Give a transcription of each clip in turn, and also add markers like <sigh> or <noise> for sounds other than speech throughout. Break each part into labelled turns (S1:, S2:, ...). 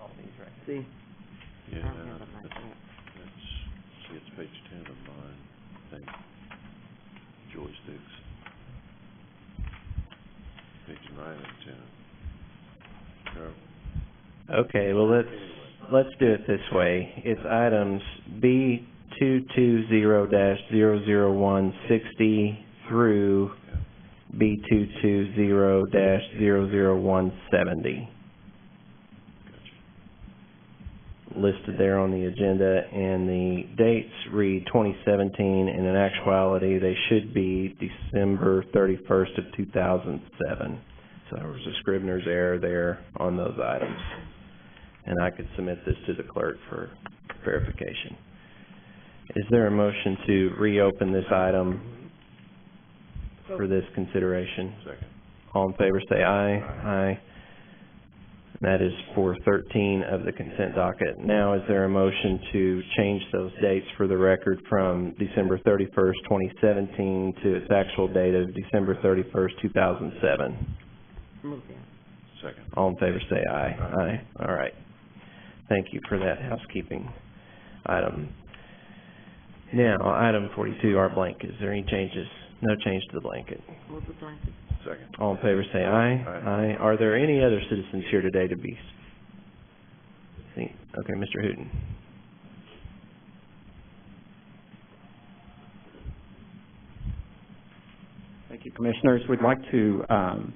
S1: all these, right?
S2: See,
S3: Yeah,
S1: I don't have them like
S3: that's,
S1: that.
S3: see, it's page ten of mine, I think, joysticks. Page nine and ten. Carol?
S4: Okay, well, let's, let's do it this way. It's items B two-two-zero dash zero-zero-one sixty through B two-two-zero dash zero-zero-one seventy,
S3: Gotcha.
S4: listed there on the agenda, and the dates read twenty seventeen, and in actuality, they should be December thirty-first of two thousand seven. So there was a scrivener's error there on those items. And I could submit this to the clerk for verification. Is there a motion to reopen this item for this consideration?
S3: Second.
S4: All in favor, say aye. Aye. And That is for thirteen of the consent docket. Now, is there a motion to change those dates for the record from December thirty-first, twenty seventeen to its actual date of December thirty-first, two thousand seven?
S2: move that.
S3: Second.
S4: All in favor, say aye. Aye. All right. Thank you for that housekeeping item. Now, item forty-two, our blank. Is there any changes? No change to the blanket.
S2: Move the blanket.
S3: Second.
S4: All in favor, say aye.
S3: Aye.
S4: Are there any other citizens here today to be? seen? Okay, Mr. Hooton.
S5: Thank you, Commissioners. We'd like to um,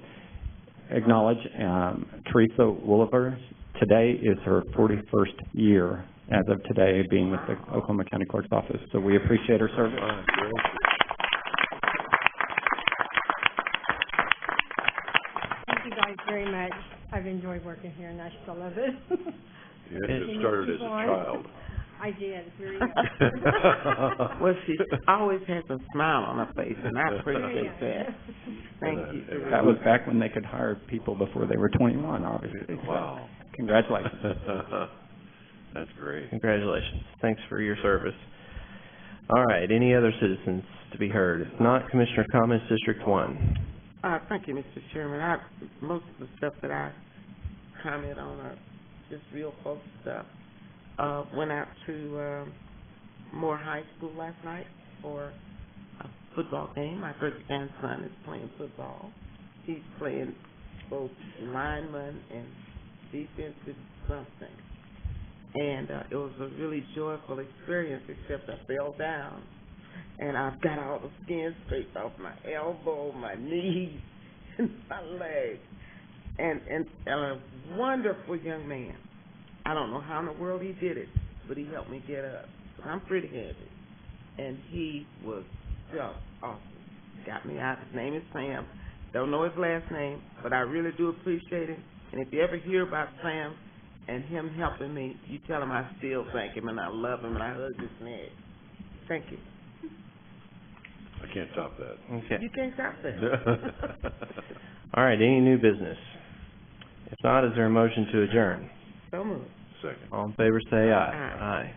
S5: acknowledge um, Teresa Wooliver. Today is her 41st year as of today being with the Oklahoma County Clerk's Office, so we appreciate her service.
S3: My gracious.
S6: Thank you guys very much. I've enjoyed working here and I still love
S3: <laughs>
S6: it.
S3: You had to
S4: Can
S3: have
S6: you
S3: started as
S6: keep
S3: a
S6: on?
S3: child.
S6: I did, it's
S3: <laughs>
S6: very
S2: <laughs> Well, she always has a smile on her face, and I
S6: <laughs>
S2: appreciate that. Thank you. Teresa.
S5: That was back when they could hire people before they were 21, obviously. so
S3: <laughs> Wow.
S5: Congratulations.
S3: That's great.
S4: Congratulations. Thanks for your service. All right, any other citizens to be heard? If not, Commissioner comments, District One.
S2: Uh, thank you, Mr. Chairman. I, most of the stuff that I comment on are just real folk stuff. Uh, went out to, um, Moore High School last night for a football game. My first grandson is playing football. He's playing both lineman and defensive something. And, uh, it was a really joyful experience, except I fell down and I've got all the skin scraped off my elbow, my knees, <laughs> and my legs. And, and, and a wonderful young man. I don't know how in the world he did it, but he helped me get up. So I'm pretty happy. And he was just awesome. Got me out. His name is Sam. Don't know his last name, but I really do appreciate him. And if you ever hear about Sam and him helping me, you tell him I still thank him and I love him and I hug his neck. Thank you.
S3: I can't top that.
S4: Okay.
S2: You can't stop that.
S4: All right, any new business? If not, is there a motion to adjourn?
S2: so moved.
S3: <laughs> Second.
S4: All in favor, say aye.
S2: Aye.
S4: Aye.